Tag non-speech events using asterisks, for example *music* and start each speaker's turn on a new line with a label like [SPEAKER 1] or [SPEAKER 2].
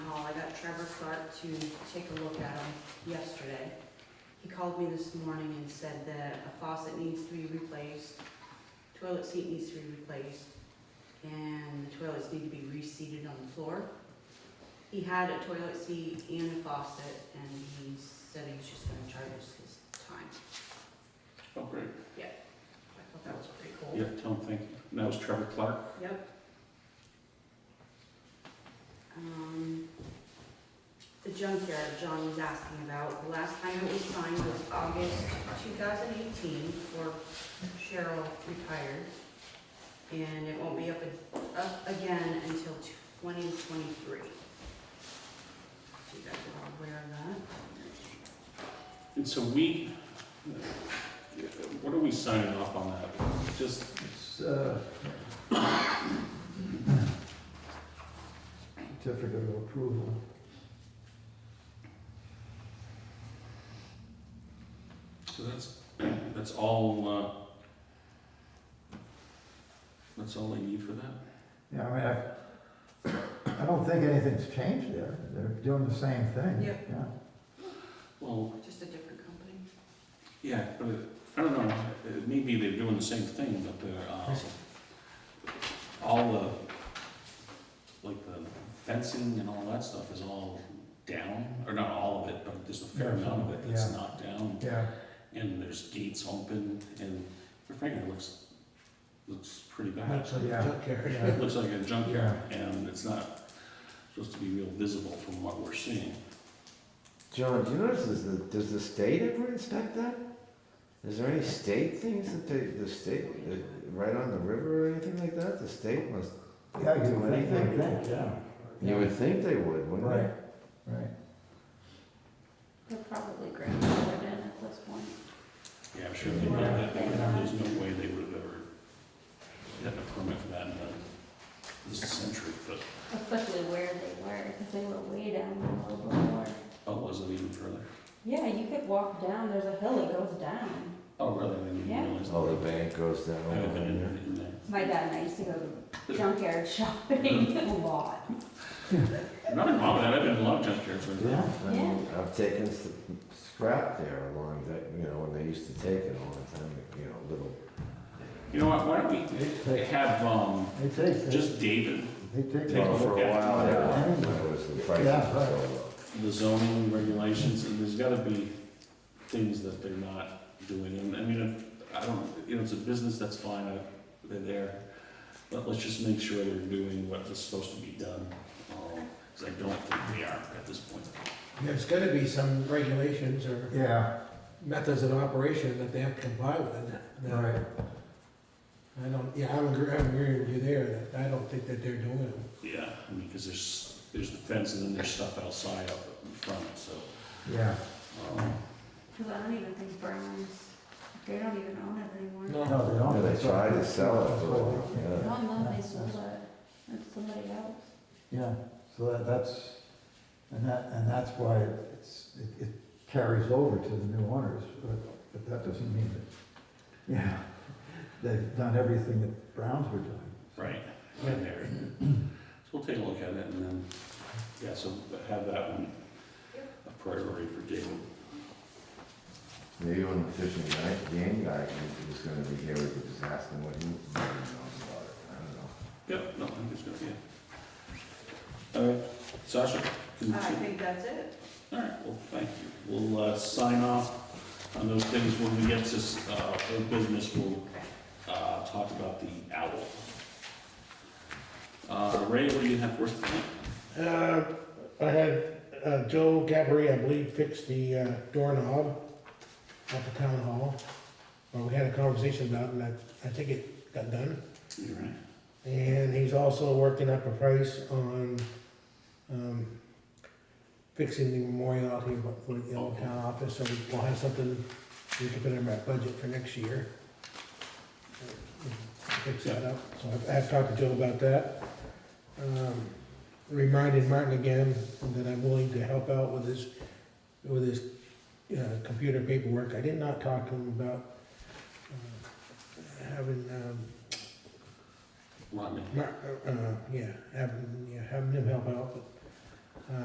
[SPEAKER 1] Trevor Clark to take a look at them yesterday. He called me this morning and said that a faucet needs to be replaced, toilet seat needs to be replaced, and the toilets need to be reseated on the floor. He had a toilet seat and a faucet, and he said he's just gonna charge us his time.
[SPEAKER 2] Oh, great.
[SPEAKER 1] I thought that was pretty cool.
[SPEAKER 2] Yeah, tell them thank you. And that was Trevor Clark.
[SPEAKER 1] Yep. Um, The junkyard John was asking about, the last time it was signed was August 2018 before Cheryl retired. And it won't be up, a- up again until 2023. So you guys are all aware of that.
[SPEAKER 2] And so we, what are we signing off on that? Just,
[SPEAKER 3] It's, uh, Certificate of approval.
[SPEAKER 2] so that's, *clears throat* that's all, uh, that's all they need for that?
[SPEAKER 3] Yeah, I mean, I, I don't think anything's changed there. They're doing the same thing.
[SPEAKER 1] Yep.
[SPEAKER 3] Yeah.
[SPEAKER 2] Well,
[SPEAKER 1] Just a different company.
[SPEAKER 2] yeah, but it- I don't know, It- maybe they're doing the same thing, but they're, uh, all the, like the fencing and all that stuff is all down, or not all of it, but there's a fair amount of it that's
[SPEAKER 3] Yeah.
[SPEAKER 2] not down.
[SPEAKER 3] Yeah,
[SPEAKER 2] and there's gates open, and quite frankly, it looks, looks pretty bad.
[SPEAKER 4] That's like a
[SPEAKER 3] Yeah.
[SPEAKER 4] junkyard.
[SPEAKER 3] yeah,
[SPEAKER 2] It looks like a junkyard, and it's not supposed to be real visible from what we're seeing.
[SPEAKER 5] John, do you notice, is the, does the state ever inspect that? Is there any state things that they, the state, uh, right on the river or anything like that? The state must
[SPEAKER 3] Yeah, you
[SPEAKER 5] do
[SPEAKER 3] would think,
[SPEAKER 5] anything?
[SPEAKER 4] Yeah.
[SPEAKER 5] You would think they would, wouldn't
[SPEAKER 3] right, right.
[SPEAKER 6] They're probably grandfathered in at this point.
[SPEAKER 2] Yeah, I'm sure they did that, but there's no way they would have ever gotten a permit for that in the, this century, but,
[SPEAKER 6] Especially where they were, because they were way down the low before.
[SPEAKER 2] oh, was it even further?
[SPEAKER 6] Yeah, you could walk down, there's a hill that goes down.
[SPEAKER 2] Oh, really? I didn't
[SPEAKER 6] Yeah.
[SPEAKER 2] realize
[SPEAKER 5] they?
[SPEAKER 2] that.
[SPEAKER 5] All Oh, the bank goes down.
[SPEAKER 2] I haven't been in there, in there.
[SPEAKER 6] My dad and I used to go junkyard *laughs* shopping a lot.
[SPEAKER 2] Nothing wrong with that, I've been in a lot of junkyards, but-
[SPEAKER 5] Yeah, I
[SPEAKER 6] Yeah.
[SPEAKER 5] mean, I've taken s- scrap there along that, you know, when they used to take it all the time, you know, little.
[SPEAKER 2] You know what, why don't
[SPEAKER 3] They
[SPEAKER 2] we
[SPEAKER 3] take,
[SPEAKER 2] have, um,
[SPEAKER 3] they take,
[SPEAKER 2] just David
[SPEAKER 3] they take.
[SPEAKER 2] Take
[SPEAKER 5] Well,
[SPEAKER 2] a
[SPEAKER 5] for
[SPEAKER 2] look
[SPEAKER 5] a
[SPEAKER 2] at
[SPEAKER 5] while,
[SPEAKER 2] it.
[SPEAKER 5] yeah, when it was the price
[SPEAKER 3] Yeah,
[SPEAKER 5] was so low.
[SPEAKER 2] the zoning regulations, and there's gotta be things that they're not doing, and, I mean, if- I don't, you know, it's a business, that's fine, I, they're there, but let's just make sure they're doing what is supposed to be done, um, cause I don't think they are at this point.
[SPEAKER 4] There's gotta be some regulations or
[SPEAKER 3] Yeah,
[SPEAKER 4] methods of operation that they have to comply with. that-
[SPEAKER 3] right,
[SPEAKER 4] I don't, yeah, I'm agree, I'm agreeing with you there, that I don't think that they're doing it.
[SPEAKER 2] Yeah, I mean, cause there's, there's the fence, and then there's stuff outside up in front, so,
[SPEAKER 3] yeah.
[SPEAKER 2] um,
[SPEAKER 6] Because I don't even think Browns, they don't even own it anymore.
[SPEAKER 3] No, they don't.
[SPEAKER 5] Yeah, they tried to sell it, but,
[SPEAKER 3] Yeah.
[SPEAKER 5] yeah.
[SPEAKER 6] One month they sold it, it's somebody else.
[SPEAKER 3] Yeah, so that, that's, and that, and that's why it's, it, it carries over to the new owners, but, but that doesn't mean that, yeah, *laughs* they've done everything that Browns were doing.
[SPEAKER 2] right, right there. So we'll take a look at it, and then, yeah, so have that one a priority for David.
[SPEAKER 5] Maybe when the fishing guy, game guy is gonna be here, we could just ask him what he knows about it, I don't know.
[SPEAKER 2] Yep, no, I think it's good, yeah. All right, Sasha? can you-
[SPEAKER 1] I think that's it.
[SPEAKER 2] All right, well, thank you. We'll uh, sign off on those things when we get to uh, old business, we'll uh, talk about the owl. Uh, Ray, what do you have for us tonight?
[SPEAKER 4] Uh, I had, uh, Joe Gabri, I believe, fixed the uh, doorknob at the town hall. Well, we had a conversation about it, and I, I think it got done.
[SPEAKER 2] You're right.
[SPEAKER 4] And he's also working up a price on, um, fixing the memorial out here for the old town office, so we'll have something, we can put in our budget for next year. Fix that up, so I've- I've talked to Joe about that. Um, Reminded Martin again that I'm willing to help out with his, with his, uh, computer paperwork. I did not talk to him about, uh, having, um,
[SPEAKER 2] Rodney?
[SPEAKER 4] Mar- uh, uh, yeah, having, yeah, having him help out, but